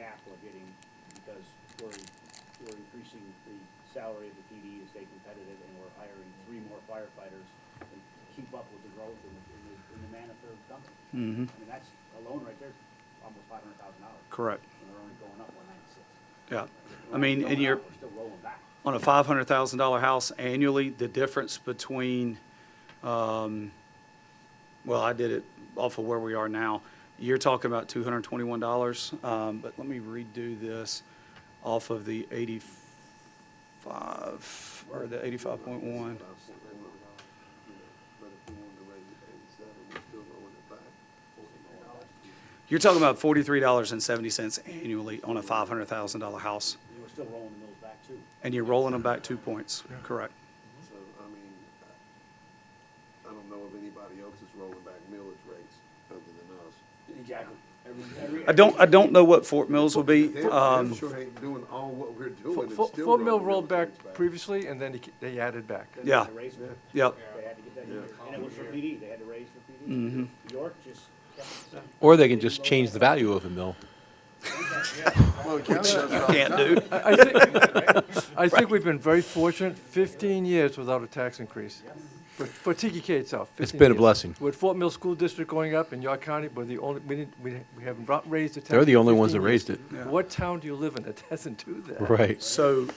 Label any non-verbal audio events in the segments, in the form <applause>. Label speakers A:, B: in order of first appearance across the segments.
A: we're getting, because we're, we're increasing the salary of the PD to stay competitive, and we're hiring three more firefighters to keep up with the growth in the, in the, in the Manatherm company.
B: Mhm.
A: I mean, that's alone right there, almost five hundred thousand dollars.
B: Correct,
A: And we're only going up one ninety-six.
B: yeah. I mean, and you're,
A: We're still rolling back.
B: on a five hundred thousand dollar house annually, the difference between, um, well, I did it off of where we are now. You're talking about two hundred and twenty-one dollars, um, but let me redo this off of the eighty-five, or the eighty-five point one.
C: But if we wanted to raise it to eighty-seven, we're still going it back.
B: You're talking about forty-three dollars and seventy cents annually on a five hundred thousand dollar house,
A: And we're still rolling the mills back too.
B: and you're rolling them back two points, correct?
C: So, I mean, I- I don't know if anybody else is rolling back millage rates other than us.
A: Exactly. Every, every.
B: I don't, I don't know what Fort Mills will be,
C: They they
B: um,
C: sure ain't doing all what we're doing and still
D: Fort
C: rolling.
D: Fort Mill
C: millage
D: rolled back
C: rates
D: previously, and then he ca- they
C: <laughs>
D: added back.
A: Then they
B: yeah,
A: had to raise it.
B: yep.
A: They had to get that, in
C: Yeah.
A: there. and it was for PD, they had to raise for PD.
B: Mm-hmm.
A: York just kept it the same.
E: Or they can just change the value of a mill.
C: Well, the
D: <laughs>
C: county does it all the
B: Can't
C: time.
B: do.
D: I- I think- I think we've been very fortunate, 15 years without a tax increase for for TDK itself.
E: It's
D: 15
E: been a
D: years.
E: blessing.
D: With Fort Mill School District going up and York County, we're the only, we didn't, we we haven't brought- raised the tax.
E: They're the
D: in
E: only ones
D: 15
E: that raised
D: years.
B: it.
D: What town do you live in that <laughs> doesn't do that?
E: Right.
B: So,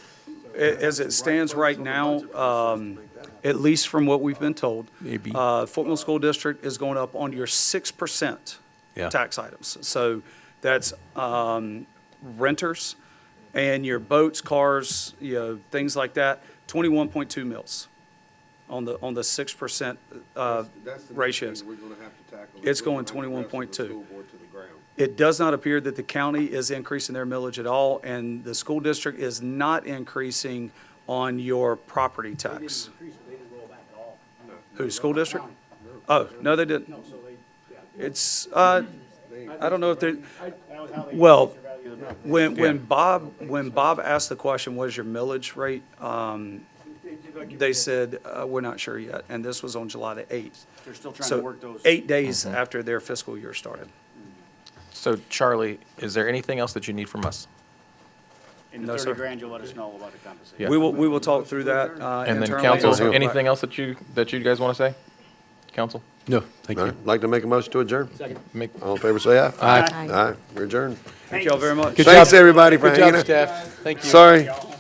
B: a- as it stands right now, um, at least from what we've been told,
E: Maybe.
B: uh, Fort Mill School District is going up on your six percent
E: Yeah.
B: tax items. So that's, um, renters and your boats, cars, you know, things like that, twenty-one point two mils on the, on the six percent, uh,
C: That's- that's the next thing
B: ratios.
C: We're gonna have to tackle.
B: It's
C: We're gonna
B: going
C: have to wrestle
B: 21.2.
C: the school board to the ground.
B: It does not appear that the county is increasing their millage at all, and the school district is not increasing on your property
A: They didn't
B: tax.
A: increase, but they didn't roll back at all.
B: Who, school district? Oh, no, they didn't.
A: No, so they, yeah.
B: It's, uh, I don't know if they,
A: That was how they.
B: Well,
A: increased their value of the mills.
B: when, when Bob, when Bob asked the question, what is your millage rate? Um, they said, uh, we're not sure yet, and this was on July the eighth.
A: They're still trying to
B: So
A: work those.
B: eight days
F: Mm-hmm.
B: after their fiscal year started.
F: So Charlie, is there anything else that you need from us?
A: In
B: No,
A: the
B: sir.
A: thirty grand, you'll let us know about the compensation.
F: Yeah.
B: We will, we will talk through that, uh,
F: And
B: internally.
F: then council,
B: circle back.
F: anything else that you, that you guys want to say? Council?
E: No, thank you.
C: Like to make a motion to adjourn?
F: Make-
C: All in favor, say aye.
F: Aye.
C: Aye, we're adjourned.
B: Thank y'all very much.
E: Good
C: Thanks,
E: job.
C: everybody, for
E: Good job,
C: hanging out.
E: staff. Thank you.
C: Sorry.